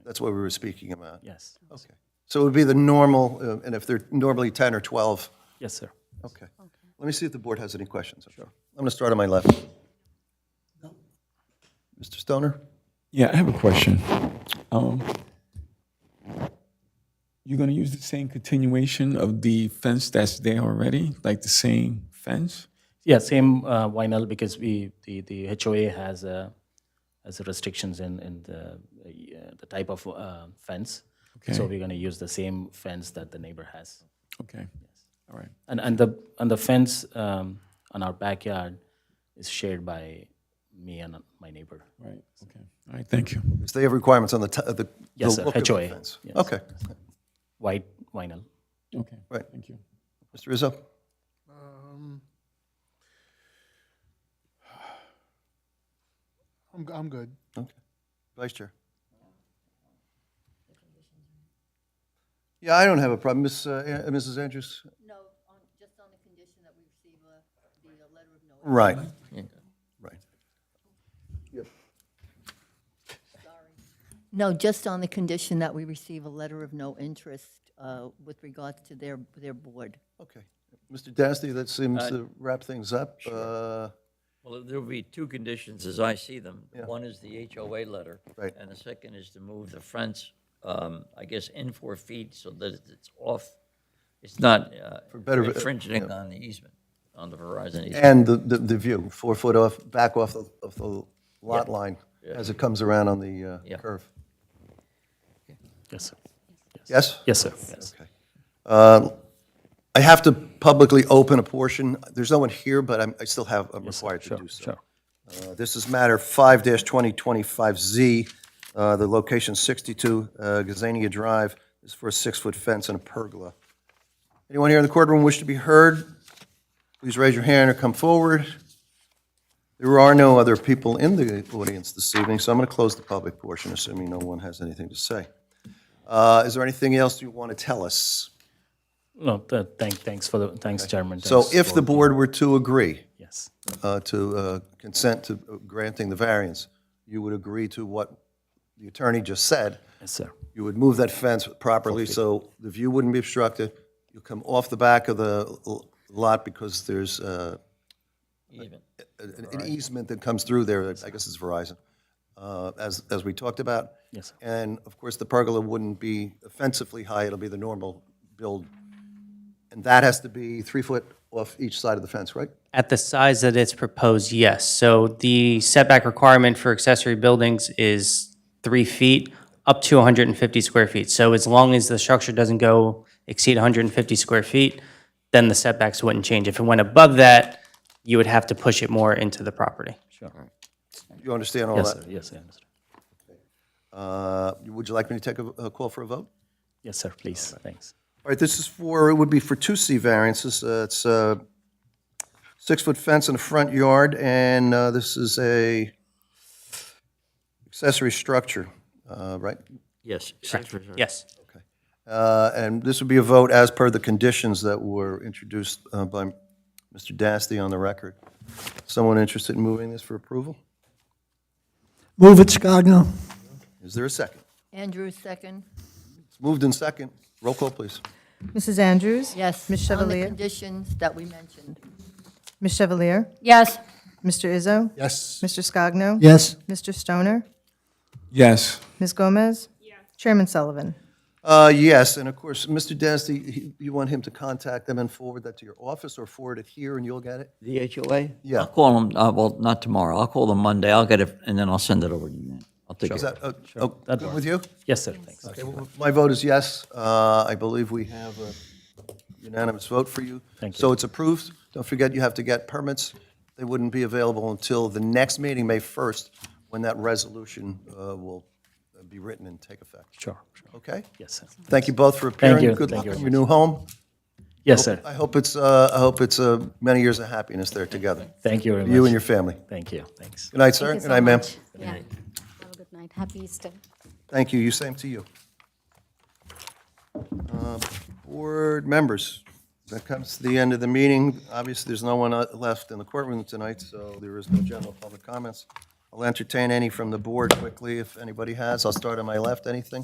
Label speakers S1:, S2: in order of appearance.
S1: That's what we were speaking about?
S2: Yes,
S1: Okay. So it would be the normal, uh, and if they're normally 10 or 12,
S2: yes, sir.
S1: okay. Let me see if the board has any questions. Sure. I'm going to start on my left. Mr. Stoner?
S3: Yeah, I have a question. Um, you're gonna use the same continuation of the fence that's there already, like the same fence?
S2: Yeah, same uh, vinyl because we, the, the HOA has, uh, has restrictions in, in the, uh, the type of uh, fence. So we're gonna use the same fence that the neighbor has.
S3: Okay, all right.
S2: And, and the, and the fence um, on our backyard is shared by me and my neighbor.
S3: Right, okay. All right, thank you.
S1: Because they have requirements on the, t- uh, the the
S2: Yes, sir,
S1: look of the
S2: HOA,
S1: fence.
S2: yes.
S1: Okay.
S2: White vinyl.
S3: Okay,
S1: Right.
S3: thank you.
S1: Mr. Rizzo?
S4: I'm, I'm good.
S1: Okay. Vice Chair? Yeah, I don't have a problem. Miss, uh, An- Mrs. Andrews?
S5: No, on, just on the condition that we receive a, the uh, letter of no,
S1: Right. Right.
S5: no, just on the condition that we receive a letter of no interest uh, with regards to their, their board.
S1: Okay. Mr. Dasty, that seems to wrap things up. Uh,
S6: Well, there'll be two conditions as I see them. One is the HOA letter.
S1: Right.
S6: And the second is to move the fence, um, I guess, in four feet so that it's off, it's not uh,
S1: better-
S6: infringing on the easement, on the Verizon easement.
S1: And the, the, the view, four foot off, back off the- of the lot line as it comes around on the uh,
S6: Yeah.
S1: curve.
S2: Yes, sir.
S1: Yes?
S2: Yes, sir. Yes.
S1: Okay. Uh, I have to publicly open a portion. There's no one here, but I'm, I still have, I'm required to do so.
S2: Sure.
S1: Uh, This is matter 5-2025Z, uh, the location 62 uh, Gazania Drive, is for a six-foot fence and a pergola. Anyone here in the courtroom wish to be heard? Please raise your hand or come forward. There are no other people in the audience this evening, so I'm going to close the public portion, assuming no one has anything to say. Uh, Is there anything else you want to tell us?
S2: No, th- thank, thanks for the, thanks, Chairman.
S1: So
S2: Thanks
S1: if
S2: for-
S1: the board were to agree,
S2: Yes,
S1: uh, to uh, consent to granting the variance, you would agree to what the attorney just said.
S2: yes, sir.
S1: You would move that fence properly so the view wouldn't be obstructed. you come off the back of the l- lot because there's uh,
S6: Easement.
S1: an an easement that comes through there, I guess it's Verizon, uh, as, as we talked about.
S2: Yes, sir.
S1: And of course, the pergola wouldn't be offensively high, it'll be the normal build. And that has to be three foot off each side of the fence, right?
S7: At the size that it's proposed, yes. So the setback requirement for accessory buildings is three feet up to 150 square feet. So as long as the structure doesn't go exceed 150 square feet, then the setbacks wouldn't change. If it went above that, you would have to push it more into the property.
S1: You understand all
S2: Yes, sir.
S1: that?
S2: Yes, I understand.
S1: Uh, Would you like me to take a a call for a vote?
S2: Yes, sir, please, thanks.
S1: All right, this is for, it would be for two C variances. Uh, It's a six-foot fence in the front yard, and uh, this is a accessory structure, uh, right?
S6: Yes.
S7: Yes.
S1: Uh, And this would be a vote as per the conditions that were introduced uh, by Mr. Dasty on the record. Someone interested in moving this for approval?
S8: Move it, Scogno.
S1: Is there a second?
S5: Andrew, second?
S1: It's moved in second. Roll call, please.
S9: Mrs. Andrews?
S5: Yes. On
S9: Ms.
S5: the
S9: Chevalier?
S5: conditions that we mentioned.
S9: Ms. Chevalier?
S5: Yes.
S9: Mr. Izzo?
S4: Yes.
S9: Mr. Scogno?
S8: Yes.
S9: Mr. Stoner?
S3: Yes,
S9: Ms. Gomez? Chairman Sullivan?
S1: Uh, Yes, and of course, Mr. Dasty, he- you want him to contact them and forward that to your office or forward it here and you'll get it?
S6: The HOA?
S1: Yeah.
S6: I'll call them, uh, well, not tomorrow. I'll call them Monday. I'll get it, and then I'll send it over to you. I'll take
S1: Is
S6: it.
S1: that, uh, oh, good with you?
S2: Yes, sir, thanks.
S1: Okay, well, My vote is yes. Uh, I believe we have a unanimous vote for you.
S2: Thank
S1: So
S2: you.
S1: it's approved. Don't forget, you have to get permits. They wouldn't be available until the next meeting, May 1st, when that resolution uh, will be written and take effect.
S2: Sure, sure.
S1: Okay?
S2: Yes, sir.
S1: Thank you both for appearing.
S2: you.
S1: Good luck
S2: Thank you
S1: in
S2: very
S1: your new home.
S2: Yes, sir.
S1: I hope it's, uh, I hope it's uh, many years of happiness there together,
S2: Thank you very much.
S1: you and your family.
S2: Thank you. Thanks.
S1: Good night, sir.
S10: Thank you
S1: Good
S10: so
S1: night, ma'am.
S10: much. Yeah. Have a good night. Happy Easter.
S1: Thank you, you, same to you. Uh, Board members, that comes to the end of the meeting. Obviously, there's no one uh, left in the courtroom tonight, so there is no general public comments. I'll entertain any from the board quickly if anybody has. I'll start on my left. Anything?